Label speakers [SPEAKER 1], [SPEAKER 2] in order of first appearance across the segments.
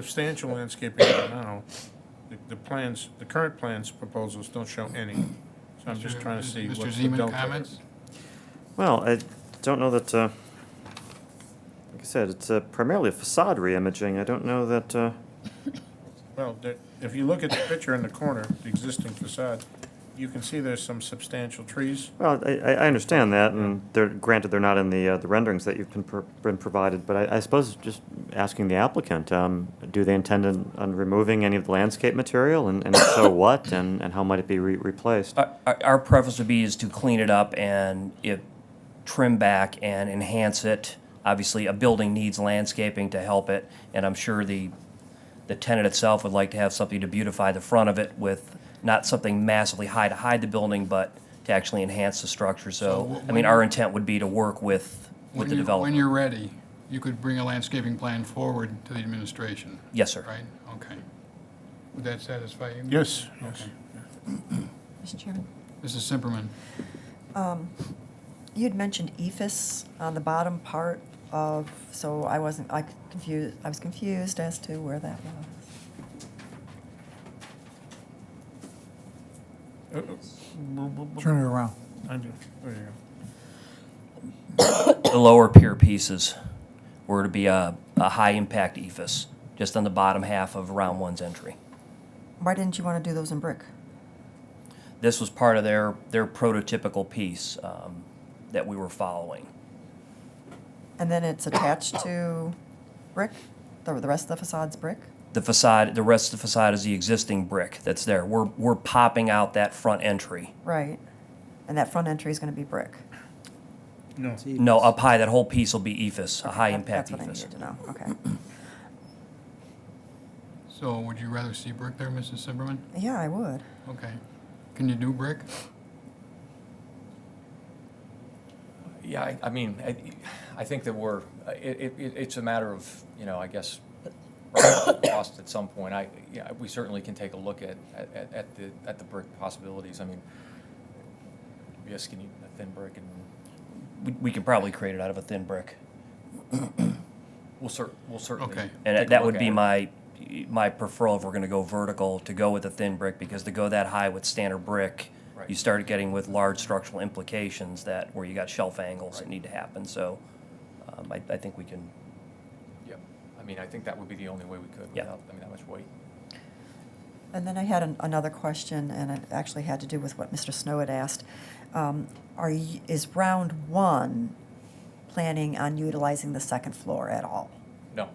[SPEAKER 1] substantial landscaping right now, the, the plans, the current plans proposals don't show any. So I'm just trying to see what's the delta.
[SPEAKER 2] Mr. Zeman, comments?
[SPEAKER 3] Well, I don't know that, uh, like I said, it's uh, primarily a facade reimaging. I don't know that, uh,
[SPEAKER 1] Well, there- if you look at the picture in the corner, the existing facade, you can see there's some substantial trees.
[SPEAKER 3] well, I, I I understand that, and they're, granted, they're not in the, uh, the renderings that you've been, pro- been provided, but I, I suppose just asking the applicant, um, do they intend on, on removing any of the landscape material, and, and if so what, and, and how might it be re- replaced?
[SPEAKER 2] Uh,
[SPEAKER 4] Our- Our our preference would be is to clean it up and it, trim back and enhance it. Obviously, a building needs landscaping to help it, and I'm sure the, the tenant itself would like to have something to beautify the front of it with, not something massively high to hide the building, but to actually enhance the structure. So,
[SPEAKER 2] So
[SPEAKER 4] I mean, our intent would be to work with,
[SPEAKER 2] When
[SPEAKER 4] with the
[SPEAKER 2] you- When
[SPEAKER 4] developer.
[SPEAKER 2] you're ready, you could bring a landscaping plan forward to the administration,
[SPEAKER 4] Yes, sir.
[SPEAKER 2] right? Okay. Would that satisfy you?
[SPEAKER 1] Yes, yes.
[SPEAKER 5] Mr. Chairman,
[SPEAKER 2] Mrs. Simperman,
[SPEAKER 5] you'd mentioned E EFS on the bottom part of, so I wasn't, I confused, I was confused as to where that was.
[SPEAKER 1] Uh, uh,
[SPEAKER 6] Turn it around.
[SPEAKER 1] I do- there you go.
[SPEAKER 4] The lower pier pieces were to be a, a E high-impact ephes, just on the bottom half of round one's entry.
[SPEAKER 5] Why didn't you want to do those in brick?
[SPEAKER 4] this was part of their, their prototypical piece um, that we were following.
[SPEAKER 5] And then it's attached to brick, the, the rest of the facade's brick?
[SPEAKER 4] The facade, the rest of the facade is the existing brick that's there. We're, we're popping out that front entry.
[SPEAKER 5] Right. And that front entry is going to be brick?
[SPEAKER 1] No,
[SPEAKER 4] No, up high, that whole piece will be EFS, a
[SPEAKER 5] Okay,
[SPEAKER 4] high
[SPEAKER 5] that-
[SPEAKER 4] impact E
[SPEAKER 5] That's what I
[SPEAKER 4] EFS.
[SPEAKER 5] needed to know, okay.
[SPEAKER 2] so would you rather see brick there, Mrs. Simperman?
[SPEAKER 5] Yeah, I would.
[SPEAKER 2] Okay. Can you do brick?
[SPEAKER 7] Yeah, I, I mean, I, I think that we're, it, it, it's a matter of, you know, I guess, cost at some point. I, yeah, we certainly can take a look at, at, at the, at the brick possibilities. I mean, yes, can you, a thin brick and
[SPEAKER 4] We, we can probably create it out of a thin brick.
[SPEAKER 7] we'll cer, we'll certainly.
[SPEAKER 2] Okay.
[SPEAKER 7] take
[SPEAKER 4] And
[SPEAKER 7] a
[SPEAKER 4] that
[SPEAKER 7] look
[SPEAKER 4] would
[SPEAKER 7] at
[SPEAKER 4] be
[SPEAKER 7] it.
[SPEAKER 4] my, my preferral if we're gonna go vertical, to go with a thin brick, because to go that high with standard brick,
[SPEAKER 7] Right.
[SPEAKER 4] you start getting with large structural implications that, where you got shelf angles that
[SPEAKER 7] Right.
[SPEAKER 4] need to happen, so um, I, I think we can
[SPEAKER 7] Yep. I mean, I think that would be the only way we could
[SPEAKER 4] Yeah.
[SPEAKER 7] without, I mean, that much weight.
[SPEAKER 5] And then I had an, another question, and it actually had to do with what Mr. Snow had asked. Um, are y is round one planning on utilizing the second floor at all?
[SPEAKER 7] No,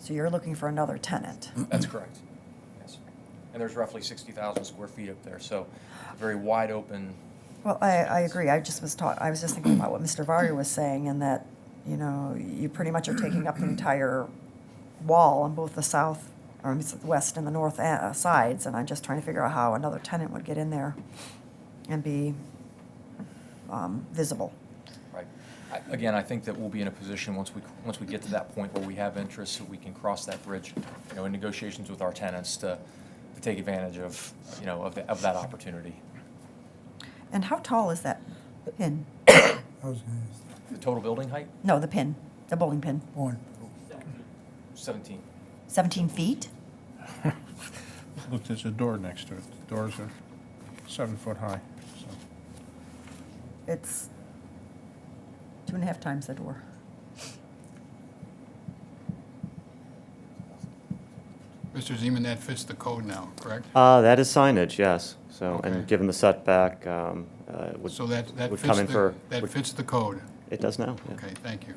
[SPEAKER 5] So you're looking for another tenant?
[SPEAKER 7] that's correct. Yes. And there's roughly sixty thousand square feet up there, so very wide open.
[SPEAKER 5] Well, I, I agree. I just was taught, I was just thinking about what Mr. Varya was saying, and that, you know, you pretty much are taking up the entire wall on both the south, or it's the west and the north uh, sides, and I'm just trying to figure out how another tenant would get in there and be um, visible.
[SPEAKER 7] Right. I- Again, I think that we'll be in a position, once we, once we get to that point where we have interest, we can cross that bridge, you know, in negotiations with our tenants to, to take advantage of, you know, of, the- of that opportunity.
[SPEAKER 5] And how tall is that pin?
[SPEAKER 6] I was gonna ask that.
[SPEAKER 7] The total building height,
[SPEAKER 5] No, the pin, the bowling pin.
[SPEAKER 6] Point.
[SPEAKER 7] 17.
[SPEAKER 5] 17 feet?
[SPEAKER 1] look, there's a door next to it. The doors are seven foot high, so.
[SPEAKER 5] It's two and a half times the door.
[SPEAKER 2] Mr. Zeman, that fits the code now, correct?
[SPEAKER 3] Uh, that is signage, yes. So,
[SPEAKER 2] Okay.
[SPEAKER 3] and given the setback, um, uh, it would,
[SPEAKER 2] So that, that
[SPEAKER 3] would
[SPEAKER 2] fits
[SPEAKER 3] come in
[SPEAKER 2] the,
[SPEAKER 3] for,
[SPEAKER 2] that
[SPEAKER 3] would-
[SPEAKER 2] fits the code.
[SPEAKER 3] it does now, yeah.
[SPEAKER 2] Okay, thank you.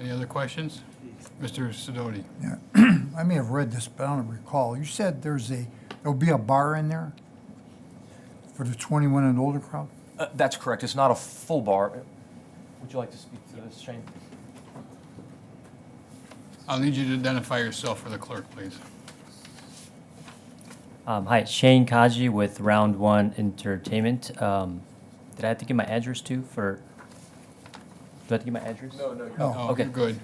[SPEAKER 2] Any other questions? Mr. Sidoti?
[SPEAKER 6] Yeah. I may have read this, but I don't recall. You said there's a, there'll be a bar in there for the 21 and older crowd?
[SPEAKER 7] Uh, That's correct. It's not a full bar. Would you like to speak to this, Shane?
[SPEAKER 2] I'll need you to identify yourself for the clerk, please.
[SPEAKER 8] Um, hi, Shane Kaji with Round One Entertainment. Um, did I have to give my address too for? Do I have to give my address?
[SPEAKER 7] no.
[SPEAKER 6] No.
[SPEAKER 2] Oh,
[SPEAKER 8] Okay.
[SPEAKER 2] you're good.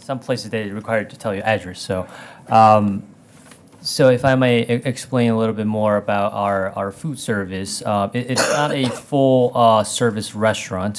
[SPEAKER 8] Some places they require to tell you address, so um,
[SPEAKER 4] So if I may e- explain a little bit more about our, our food service, uh, it- it's not a full uh, service restaurant.